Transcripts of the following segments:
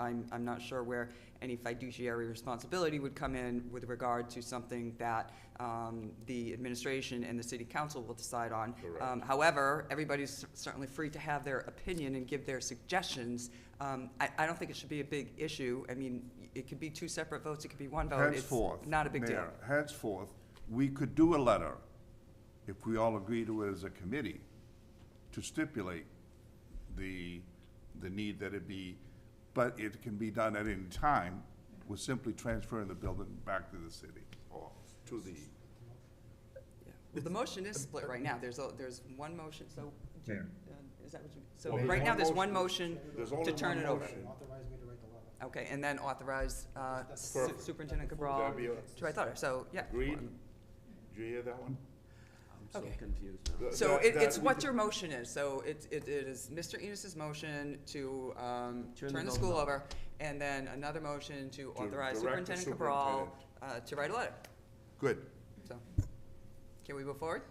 I'm, I'm not sure where any fiduciary responsibility would come in with regard to something that um, the administration and the city council will decide on. Correct. Um, However, everybody's certainly free to have their opinion and give their suggestions. Um, I, I don't think it should be a big issue. I mean, it could be two separate votes, it could be one vote. It's Henceforth. Not a big deal. Mayor, Henceforth, we could do a letter, if we all agree to it as a committee, to stipulate the, the need that it be, but it can be done at any time, we're simply transferring the building back to the city or Oh, to the, Yeah. Well, the motion is split right now. There's, a- there's one motion, so, do you- uh, is that what you, so Well, there's right now, one there's one motion. motion There's to only turn one it over. motion. Authorize me to write the letter. Okay, and then authorize uh, Su- Perfect. Superintendent Cabral That'd be a- to write the letter, so, yeah. agreed? Do you hear that one? I'm so Okay. confused now. Th- So that- it, that it's we what could- your motion is, so it, it it is Mr. Enos's motion to, um, Turn the turn the vote school over. over, and then another motion to authorize direct the Superintendent Cabral, uh, to write a letter, Good. so. Can we move forward?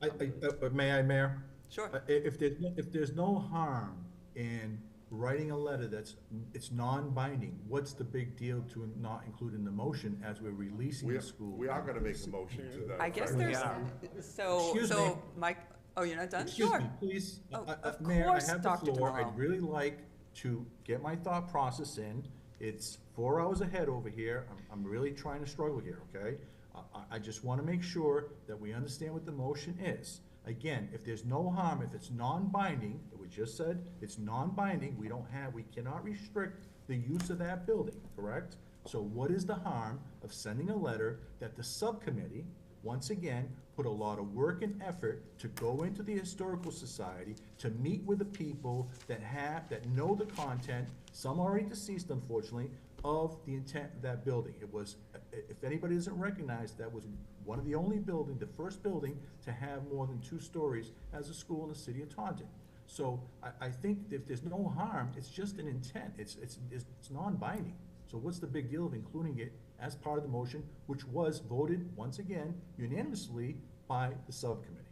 I, I, uh, but may I, Mayor? Sure. Uh, i- If there's, no- if there's no harm in writing a letter that's, it's non-binding, what's the big deal to not include in the motion as we're releasing We, the school? we are gonna make a motion to that. I guess effect. there's, so, Excuse so, me. Mike, oh, you're not done? Excuse Sure. me, please. Oh, Uh, uh, of Mayor, I course, have the Dr. floor. Tomorrow. I'd really like to get my thought process in. It's four hours ahead over here. I'm, I'm really trying to struggle here, okay? I- I, I just want to make sure that we understand what the motion is. Again, if there's no harm, if it's non-binding, we just said, it's non-binding, we don't have, we cannot restrict the use of that building, correct? So what is the harm of sending a letter that the subcommittee, once again, put a lot of work and effort to go into the Historical Society, to meet with the people that have, that know the content, some already deceased unfortunately, of the intent of that building. It was, if anybody doesn't recognize, that was one of the only building, the first building to have more than two stories as a school in the city of Taunton. So I, I think if there's no harm, it's just an intent, it's, it's, it's it's non-binding. So what's the big deal of including it as part of the motion, which was voted, once again, unanimously by the subcommittee?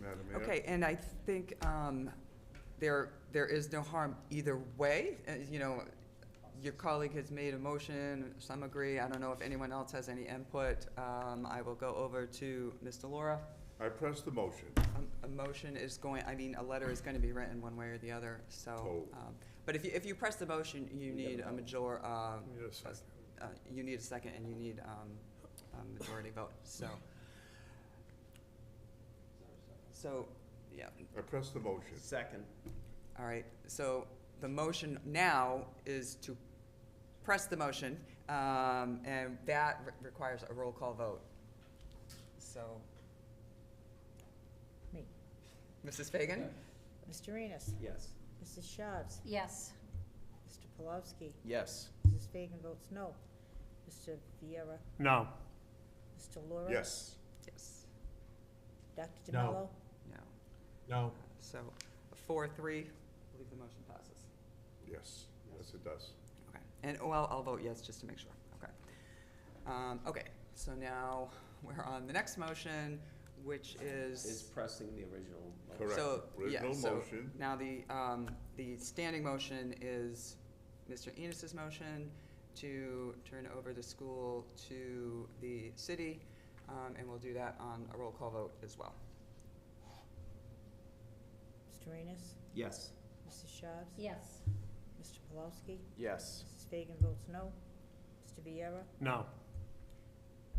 Madam Mayor? Okay, and I think um, there, there is no harm either way. Uh, You know, your colleague has made a motion, some agree, I don't know if anyone else has any input. Um, I will go over to Mr. Laura. I press the motion. Um, A motion is going, I mean, a letter is going to be written one way or the other, so. Oh. um, But if you, if you press the motion, you need a major, uh, a s- uh, you need a second and you need um, a majority vote, so. So, yeah, I press the motion. Second. all right, so the motion now is to press the motion, um, and that re- requires a roll call vote. So. Me. Mrs. Fagan? Mr. Enos. Yes. Mrs. Shabs. Yes. Mr. Polowski. Yes. Mrs. Fagan votes no. Mr. Viera. No. Mr. Laura. Yes. Yes. Dr. No. DeMello. No. No, So, four, three, I believe the motion passes. Yes, yes, it does. Okay, and, well, I'll vote yes, just to make sure, okay. Um, okay, so now we're on the next motion, which Is pressing the original. motion. Correct. So, yeah, Original so motion. now the, um, the standing motion is Mr. Enos's motion to turn over the school to the city, um, and we'll do that on a roll call vote as well. Mr. Enos. Yes. Mrs. Shabs. Yes. Mr. Polowski. Yes. Mrs. Fagan votes no. Mr. Viera. No.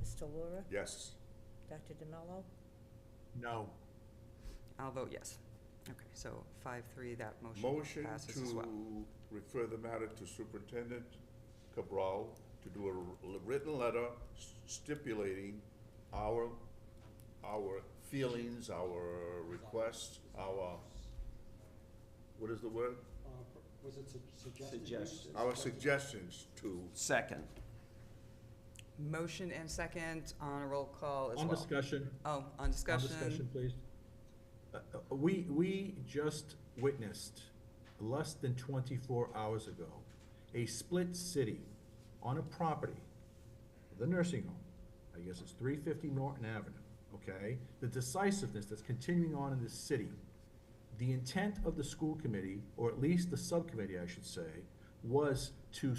Mr. Laura. Yes. Dr. DeMello. no. I'll vote yes. Okay, so five, three, that motion Motion passes as well. to refer the matter to Superintendent Cabral to do a l- written letter stipulating our, our feelings, our requests, our, what is the word? Uh, Was it su- suggested? Suggested. Our suggestions to, Second. Motion and second on a roll call as On well. discussion, Oh, on on discussion. discussion, please. Uh, uh, We, we just witnessed, less than twenty-four hours ago, a split city on a property, the nursing home, I guess it's three fifty Norton Avenue, okay? The decisiveness that's continuing on in this city, the intent of the school committee, or at least the subcommittee, I should say, was to